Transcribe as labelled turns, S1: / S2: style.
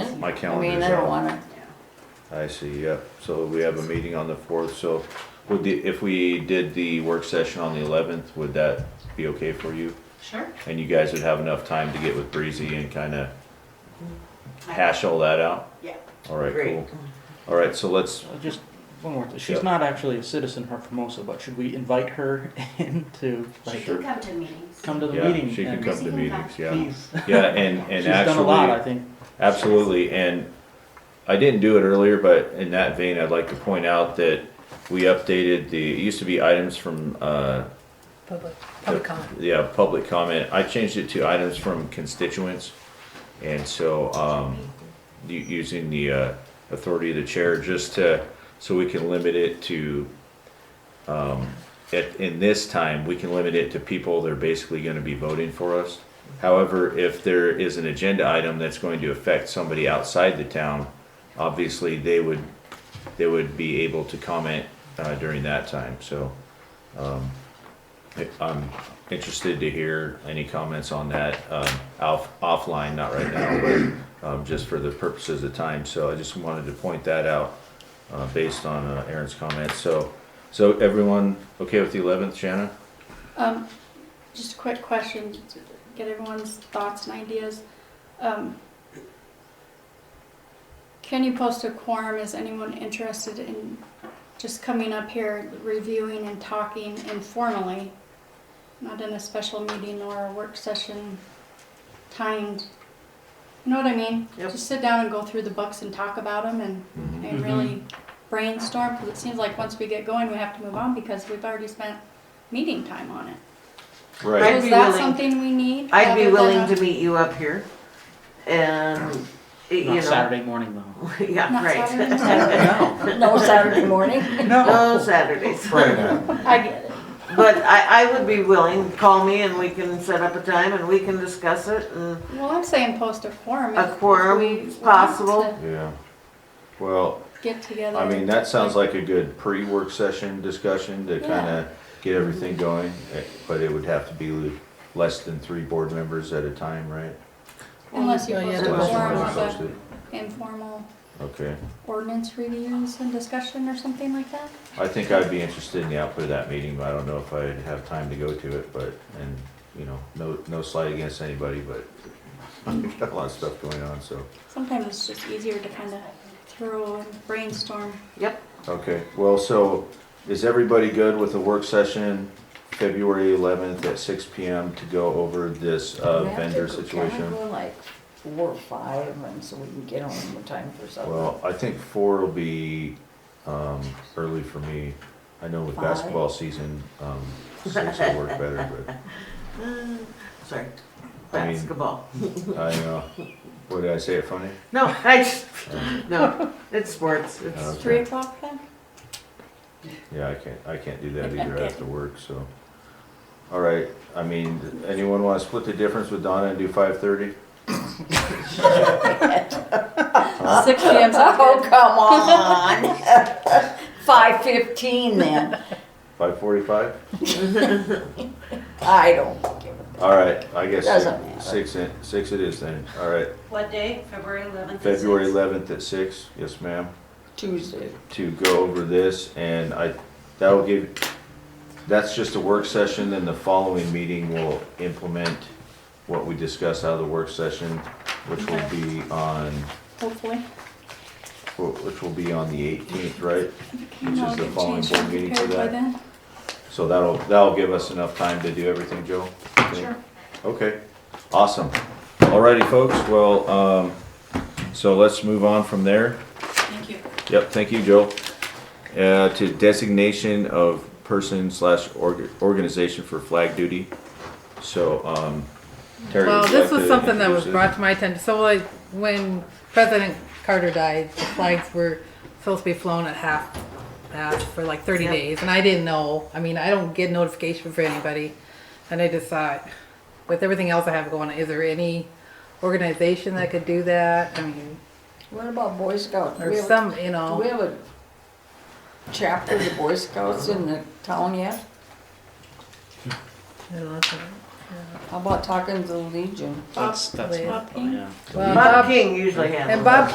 S1: my
S2: I
S1: calendar
S2: mean,
S1: is
S2: I don't
S1: out.
S2: wanna,
S1: I see, yeah, so we have a meeting on the fourth, so would the, if we did the work session on the eleventh, would that be okay for you?
S3: Sure.
S1: And you guys would have enough time to get with Breezy and kinda
S3: I-
S1: hash all that out?
S3: Yeah.
S1: Alright,
S4: Great.
S1: cool. Alright, so let's,
S5: Uh, Just one more thing.
S1: Yeah.
S5: She's not actually a citizen of Formosa, but should we invite her in to
S3: She
S5: like
S3: can come to meetings.
S5: come to the
S1: yeah,
S5: meeting?
S1: she can
S5: and
S1: come to
S3: Breezy can
S1: meetings, yeah.
S5: Please.
S1: Yeah, and, and
S5: She's done a lot, I
S1: actually,
S5: think.
S1: absolutely, and I didn't do it earlier, but in that vein, I'd like to point out that we updated the, it used to be items from, uh,
S6: Public, public comment.
S1: Yeah, public comment. I changed it to items from constituents. And so, um, u- using the, uh, authority of the chair just to, so we can limit it to, um, at, in this time, we can limit it to people that are basically gonna be voting for us. However, if there is an agenda item that's going to affect somebody outside the town, obviously they would, they would be able to comment, uh, during that time, so. Um, I'm interested to hear any comments on that, um, off, offline, not right now, but, um, just for the purposes of time, so I just wanted to point that out, uh, based on uh, Aaron's comments, so, so everyone okay with the eleventh, Shanna?
S2: um, just a quick question, to get everyone's thoughts and ideas. Um, Can you post a quorum? Is anyone interested in just coming up here, reviewing and talking informally? Not in a special meeting or a work session timed, you know what I mean?
S4: Yep.
S2: Just sit down and go through the books and talk about them and
S1: Mm-hmm.
S2: and really brainstorm, because it seems like once we get going, we have to move on because we've already spent meeting time on it.
S4: I'd
S2: Is
S4: be
S2: that
S4: willing-
S2: something we need?
S4: I'd be
S2: rather
S4: willing
S2: than a-
S4: to meet you up here and, you
S5: Not
S4: know.
S5: Saturday morning though.
S4: Yeah,
S2: Not Saturday
S4: right.
S5: No.
S6: No Saturday morning.
S4: No Oh, Saturdays.
S7: Right now.
S2: I get it.
S4: But I, I would be willing, call me and we can set up a time and we can discuss it and
S2: Well, I'm saying post a quorum.
S4: A
S2: if- if
S4: quorum
S2: we
S4: is
S2: want
S4: possible.
S2: to
S1: Yeah. Well,
S2: Get together.
S1: I mean, that sounds like a good pre-work session discussion to kinda get everything going, eh, but it would have to be less than three board members at a time, right?
S2: Unless you
S6: Well, Oh, yeah,
S2: post a
S6: the
S1: Unless you
S2: quorum
S1: want to
S2: of
S1: post it.
S2: the informal
S1: Okay,
S2: ordinance reviews and discussion or something like that.
S1: I think I'd be interested in the output of that meeting, but I don't know if I'd have time to go to it, but, and, you know, no, no slight against anybody, but I've got a lot of stuff going on, so.
S2: Sometimes it's just easier to kind of throw and brainstorm.
S1: Okay, well, so is everybody good with a work session February eleventh at six P M to go over this uh,
S6: We have to
S1: vendor
S6: go-
S1: situation?
S6: Can we go like four or five and so we can get home in time for supper?
S1: Well, I think four will be, um, early for me. I know with
S6: Five.
S1: basketball season, um, six will work better, but.
S4: mm, sorry,
S1: I mean-
S4: basketball.
S1: I know. What did I say it funny? Um,
S4: No, I just, no, it's sports. It's,
S1: Okay.
S2: Three o'clock then?
S1: Yeah, I can't, I can't do that either. I have to work, so. All right, I mean, anyone want to split the difference with Donna and do five thirty?
S4: Uh,
S2: Six p.m. 's not
S6: Oh,
S2: good.
S6: come on. Five fifteen then.
S1: Five forty-five?
S6: I don't give a.
S1: All right, I guess
S6: Doesn't matter.
S1: six, six in, six it is then. All right,
S3: What day? February eleventh?
S1: February eleventh at six, yes, ma'am,
S6: Tuesday.
S1: to go over this and I, that'll give, that's just a work session, then the following meeting will implement what we discuss out of the work session, which will be on
S2: Hopefully.
S1: Wh- which will be on the 18th, right? Which
S2: I'll
S1: is the
S2: get
S1: following
S2: changed
S1: board
S2: and
S1: meeting for
S2: prepared by
S1: that.
S2: then.
S1: So that'll, that'll give us enough time to do everything, Joe? you think?
S2: Sure.
S1: Okay, awesome. Alrighty, folks, well, um, so let's move on from there.
S3: Thank you.
S1: Yep, thank you, Joe. Uh, to designation of person slash org- organization for flag duty. So, um, Terry.
S8: Well,
S1: would you
S8: this
S1: like to
S8: was something that was
S1: introduce it?
S8: brought to my attention. So like when President Carter died, the flags were supposed to be flown at half mast for like 30
S4: Yep.
S8: days, and I didn't know. I mean, I don't get notification for anybody, and I just thought, with everything else I have going, on, is there any organization that could do that? I mean,
S6: What about Boy Scouts? Do
S8: or
S6: we have-
S8: some, you
S6: Do we
S8: know.
S6: have a chapter of the Boy Scouts in the town yet?
S8: I don't know.
S6: How about talking to the Legion?
S5: That's, that's,
S2: Bob
S5: oh,
S2: King?
S5: yeah.
S8: Well,
S4: Bob
S8: Bob,
S4: King usually handles.
S8: and Bob